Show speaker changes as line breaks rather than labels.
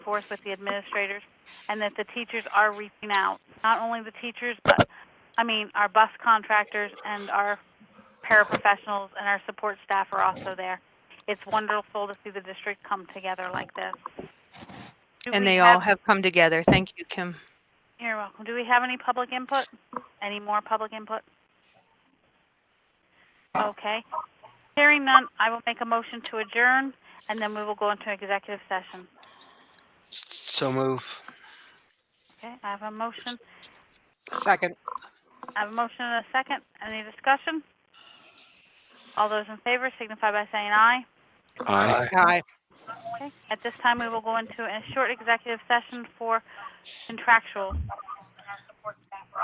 forth with the administrators, and that the teachers are reaching out. Not only the teachers, but I mean, our bus contractors and our paraprofessionals and our support staff are also there. It's wonderful to see the district come together like this. Do
And
we
they all have come together. Thank you, Kim.
You're welcome. Do we have any public input? Any more public input? Okay. Hearing none, I will make a motion to adjourn, and then we will go into executive session.
So move.
Okay, I have a motion.
Second.
I have a motion and a second. Any discussion? All those in favor signify by saying aye.
Aye.
Aye.
Okay. At this time, we will go into a short executive session for contractual.